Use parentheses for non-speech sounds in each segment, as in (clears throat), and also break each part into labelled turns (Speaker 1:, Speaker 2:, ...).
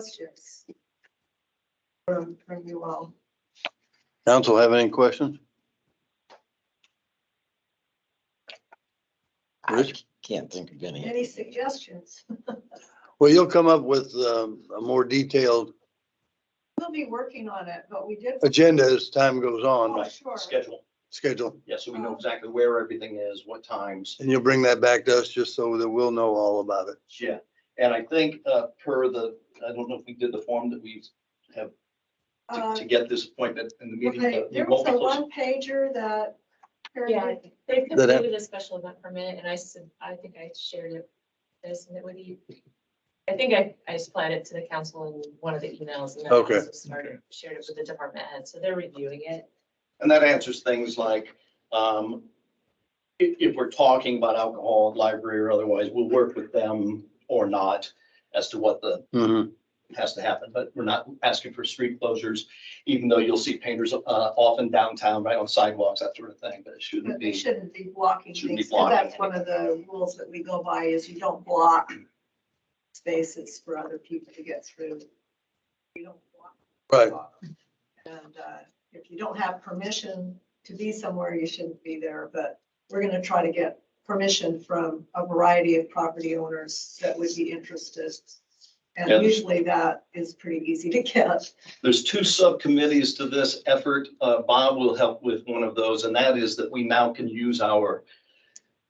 Speaker 1: questions from, from you all.
Speaker 2: Council have any questions?
Speaker 3: I
Speaker 2: Rich?
Speaker 3: can't think of any.
Speaker 1: Any suggestions?
Speaker 2: Well, you'll come up with um, a more detailed
Speaker 1: We'll be working on it, but we did.
Speaker 2: agenda as time goes
Speaker 1: Oh,
Speaker 2: on,
Speaker 1: Sure. Uh-huh.
Speaker 4: schedule.
Speaker 2: schedule.
Speaker 4: Yeah, so we know exactly where everything is, what times.
Speaker 2: And you'll bring that back to us just so that we'll know all about it.
Speaker 4: Yeah, and I think uh, per the, I don't know if we did the form that we have to-
Speaker 1: Uh,
Speaker 4: to get this appointment in the meeting.
Speaker 1: Okay,
Speaker 4: but we
Speaker 1: there was
Speaker 4: won't be
Speaker 1: a
Speaker 4: closing.
Speaker 1: one pager that.
Speaker 5: Yeah, they have
Speaker 2: That-
Speaker 5: completed a special event permit and I said, I think I shared it, I submitted with you. I think I, I supplied it to the council in one of the emails and then I
Speaker 2: Okay.
Speaker 5: also started, shared it with the department head, so they're reviewing it.
Speaker 4: And that answers things like, um, if, if we're talking about alcohol, library or otherwise, we'll work with them or not as to what the,
Speaker 2: Mhm.
Speaker 4: has to happen, but we're not asking for street closures, even though you'll see painters, uh, often downtown, right on sidewalks, that sort of thing, but it shouldn't
Speaker 1: But they
Speaker 4: be.
Speaker 1: shouldn't be blocking
Speaker 4: Shouldn't be
Speaker 1: things, 'cause that's one
Speaker 4: blocking.
Speaker 1: of the rules that we go by is you don't block spaces for other people to get through. You don't block.
Speaker 2: Right.
Speaker 1: And uh, if you don't have permission to be somewhere, you shouldn't be there, but we're gonna try to get permission from a variety of property owners that would be interested.
Speaker 4: Yeah.
Speaker 1: And usually that is pretty easy to get.
Speaker 4: There's two subcommittees to this effort. Uh, Bob will help with one of those, and that is that we now can use our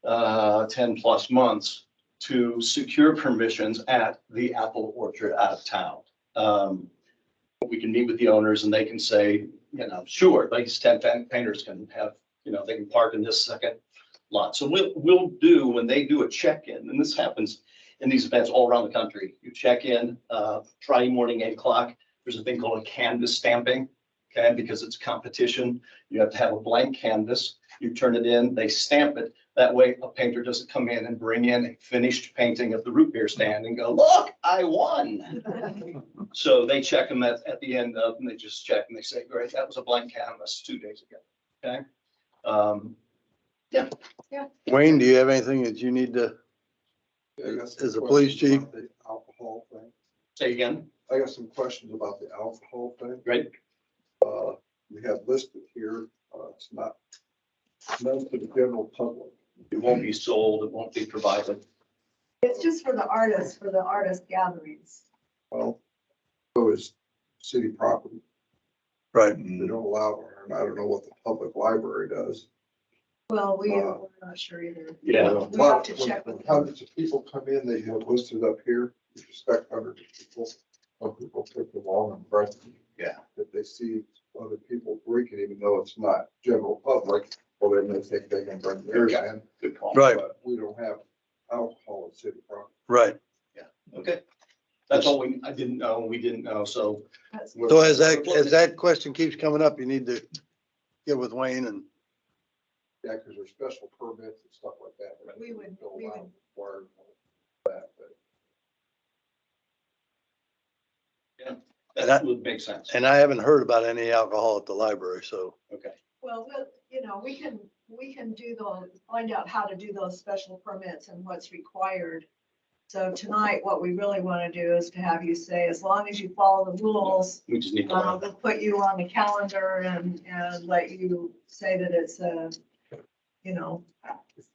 Speaker 4: uh, ten plus months to secure permissions at the apple orchard out of town. Um, We can meet with the owners and they can say, you know, sure, these ten fan- painters can have, you know, they can park in this second lot. So we'll, we'll do, when they do a check-in, and this happens in these events all around the country. You check in, uh, Friday morning, eight o'clock, there's a thing called a canvas stamping, okay, because it's competition. You have to have a blank canvas, you turn it in, they stamp it. That way a painter doesn't come in and bring in a finished painting of the root beer stand and go, look, I won. So they check them at, at the end of, and they just check and they say, great, that was a blank canvas two days ago, okay? Um,
Speaker 2: Wayne, do you have anything that you need to,
Speaker 6: I got some
Speaker 2: As a police
Speaker 6: questions about the Alcohol thing.
Speaker 4: Say again,
Speaker 6: I got some questions about the alcohol thing.
Speaker 4: Right.
Speaker 6: Uh, we have listed here, uh, it's not, none to the general public.
Speaker 4: it won't be sold, it won't be provided.
Speaker 1: It's just for the artists, for the artist gatherings.
Speaker 6: Well, so is city property.
Speaker 2: right?
Speaker 6: They don't allow, it, and I don't know what the public library does.
Speaker 1: Well, we,
Speaker 6: Uh,
Speaker 1: we're not sure either.
Speaker 4: Yeah,
Speaker 1: We have to check
Speaker 6: When
Speaker 1: with them.
Speaker 6: Hundreds of people come in, they have listed up here, you expect hundreds of people. Some people take the long and breath.
Speaker 4: Yeah.
Speaker 6: If they see other people drinking, even though it's not general public, well, then they think they can bring theirs in.
Speaker 4: good call.
Speaker 2: Right,
Speaker 6: But We don't have alcohol in city property.
Speaker 2: right.
Speaker 4: Okay, that's all we, I didn't know, we didn't know, so.
Speaker 1: That's-
Speaker 4: we're-
Speaker 2: So as that, as that question keeps coming up, you need to get with Wayne and,
Speaker 6: Yeah, because there's special permits and stuff like that. that
Speaker 1: We would-
Speaker 6: don't
Speaker 1: we
Speaker 6: allow
Speaker 1: would-
Speaker 6: for That, but.
Speaker 4: That would make sense.
Speaker 2: and I haven't heard about any alcohol at the library, so.
Speaker 4: Okay,
Speaker 1: Well, we'll- you know, we can, we can do the, find out how to do those special permits and what's required. So tonight, what we really want to do is to have you say, as long as you follow the rules,
Speaker 4: we just need
Speaker 1: uh,
Speaker 4: to,
Speaker 1: we'll put you on the calendar and, and let you say that it's a, you know,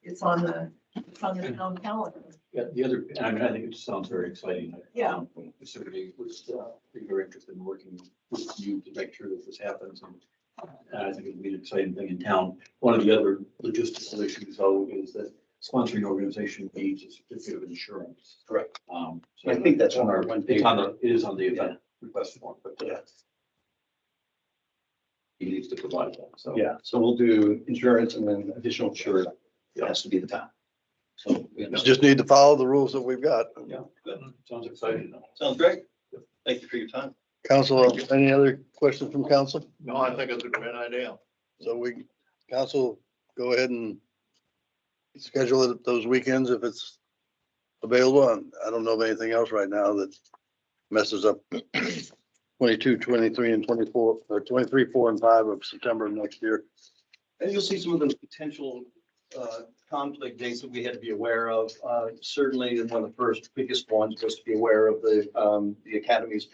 Speaker 1: it's on the, it's on the town calendar.
Speaker 7: Yeah, the other, and I mean, I think it sounds very exciting.
Speaker 1: Yeah.
Speaker 7: Um, Certainly was uh, pretty very interested in working with you to make sure that this happens. And uh, and I think it'll be an exciting thing in town. One of the other logistical issues though is that sponsoring organization needs a certificate of insurance.
Speaker 4: Correct.
Speaker 7: Um, so
Speaker 4: I think that's on our one page.
Speaker 7: It's on the, it is on the event request form, but uh, he needs to provide that, so.
Speaker 4: Yeah, so we'll do insurance and then additional insurance has to be the time. So, we
Speaker 2: You
Speaker 4: understand.
Speaker 2: Just need to follow the rules that we've got.
Speaker 7: Sounds exciting though.
Speaker 4: sounds great. Thank you for your time.
Speaker 2: Council, any other questions from council?
Speaker 8: No, I think it's a great idea.
Speaker 2: So we, council, go ahead and schedule it those weekends if it's available. And I don't know of anything else right now that messes up (clears throat) 22, 23, and 24, or 23, 4, and 5 of September of next year.
Speaker 4: And you'll see some of those potential uh, conflict dates that we had to be aware of. Uh, Certainly, one of the first biggest ones was to be aware of the, um, the academy's